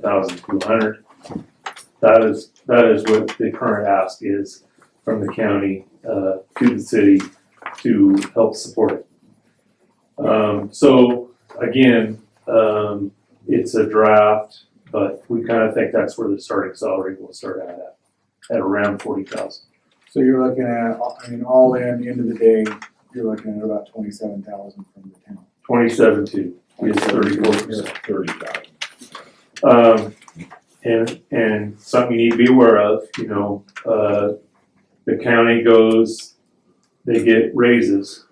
thousand two hundred. That is, that is what the current ask is from the county, uh, to the city to help support it. Um, so again, um, it's a draft, but we kind of think that's where the starting salary will start out at, at around forty thousand. So you're looking at, I mean, all in, end of the day, you're looking at about twenty-seven thousand from the town. Twenty-seven two is thirty-four percent. Thirty thousand. Um, and, and something you need to be aware of, you know, uh, the county goes, they get raises,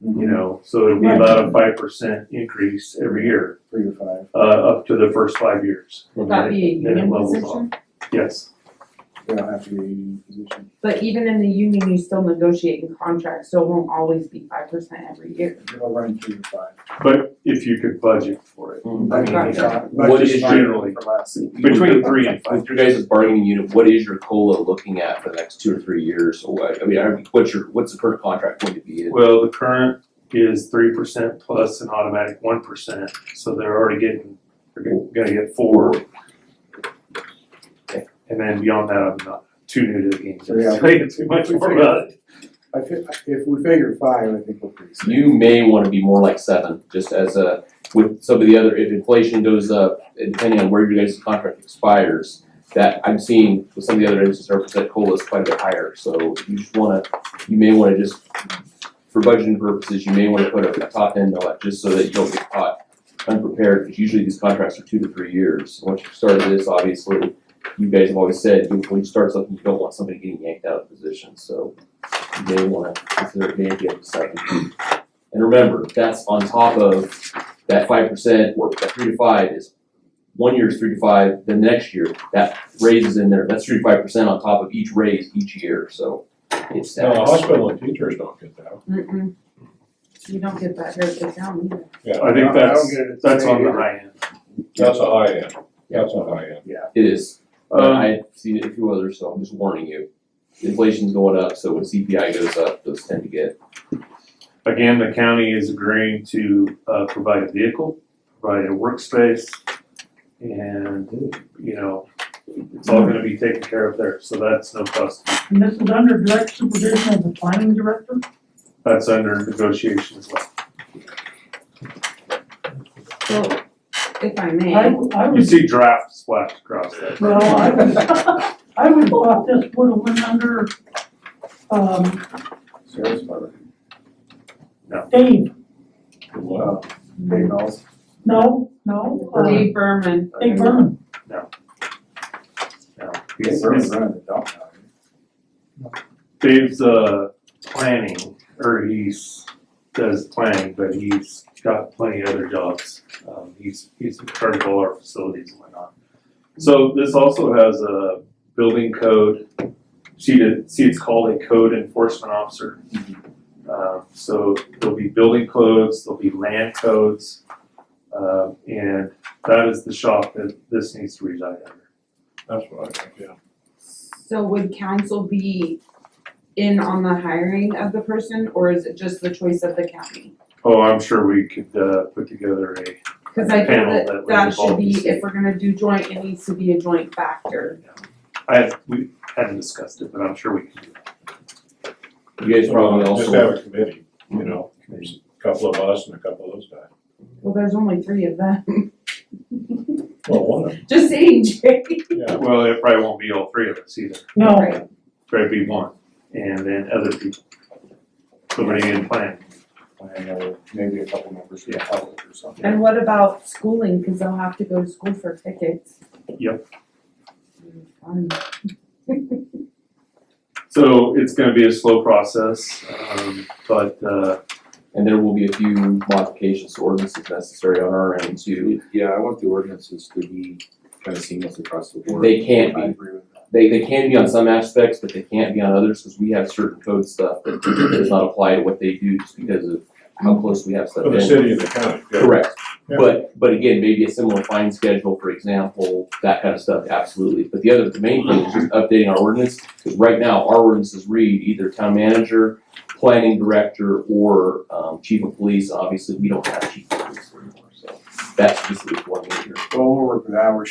Mm-hmm. you know, so it'll be about a five percent increase every year, Three to five. uh, up to the first five years. Would that be a Then it union levels off. position? Yes, They don't have to be a union position. But even in the union, you still negotiate in contracts, so it won't always be five percent every year. They'll run three to five. but if you could budget for it, I mean, Budget yeah. five- What budget is five generally- for us. between three and five. With your guys' bargaining unit, what is your COLA looking at for the next two or three years? Or what, I mean, I- what's your, what's the current contract going to be? in? Well, the current is three percent plus an automatic one percent, so they're already getting, they're gonna- gonna get four. And then beyond that, I'm not too new to the game, so Yeah. I'm saying too much more about it. I fi- if we figure five, I think we're pretty safe. You may wanna be more like seven, just as a, with some of the other, if inflation goes up, and depending on where your guys' contract expires, that I'm seeing with some of the other instances, our percent COLA is quite a bit higher, so you just wanna, you may wanna just, for budgeting purposes, you may wanna put a a top end on it, just so that you don't get caught unprepared, because usually these contracts are two to three years. Once you start this, obviously, you guys have always said, when you start something, you don't want somebody getting yanked out of position, so you may wanna consider it maybe up to seven. And remember, that's on top of that five percent or that three to five is one year is three to five, then next year, that raise is in there, that's three to five percent on top of each raise each year, so it's No, that. hospital and teachers don't get that. Mm-mm. You don't get that here at the town either. I think don't that's, get it at the that's same on the either. high end. That's a high end, that's a high end. It is, but Um, I've seen it a few others, so I'm just warning you. Inflation's going up, so when CPI goes up, those tend to get, Again, the county is agreeing to, uh, provide a vehicle, provide a workspace, and, you know, it's all gonna be taken care of there, so that's no cost. And this is under direct supervision of the planning director? That's under negotiation as well. So, if I I, may, I You would, see draft splashed across that. well, I would, I would thought this would have went under, um, Sheriff's Department. Dave, Wow. Big house. no, no, uh, Dave Berman, Dave Berman. No, They he's- burn he's- around the dump now. Dave's, uh, planning, or he's, does planning, but he's got plenty of other jobs. Um, he's, he's in charge of all our facilities and whatnot. So this also has a building code, she did, see it's called a code enforcement officer. Uh, so there'll be building codes, there'll be land codes, uh, and that is the shop that this needs to reside under. That's what I think, yeah. So would council be in on the hiring of the person, or is it just the choice of the county? Oh, I'm sure we could, uh, put together a Cause I feel Panel that that would that should involve the be, city. if we're gonna do joint, it needs to be a joint factor. I have, we hadn't discussed it, but I'm sure we can do that. you guys probably Just also, have a committee, you know, there's a couple of us and a couple of those guys. Well, there's only three of them. Well, one of them, Just saying, Jay. yeah. Well, it probably won't be all three of us either, No, Right. probably be one, and then other people. Somebody in plan, I know, maybe a couple members from the public or something. And what about schooling, cause they'll have to go to school for tickets. Mm, Yep. Fun. so it's gonna be a slow process, um, but, uh, and there will be a few modifications to ordinances necessary on our end to, Yeah, I want the ordinances to be kind of seamless across the board. they can't I be agree with that. they, they can be on some aspects, but they can't be on others, because we have certain code stuff that does not apply to what they do just because of how close we have stuff For in. the city and the county, yeah. Correct, Yeah. but, but again, maybe a similar fine schedule, for example, that kind of stuff, absolutely, but the other, the main thing is just updating our ordinance, because right now, our ordinances read either town manager, planning director, or, um, chief of police, obviously, we don't have chief of police anymore, so that's just the one major Well, we'll work with that, we're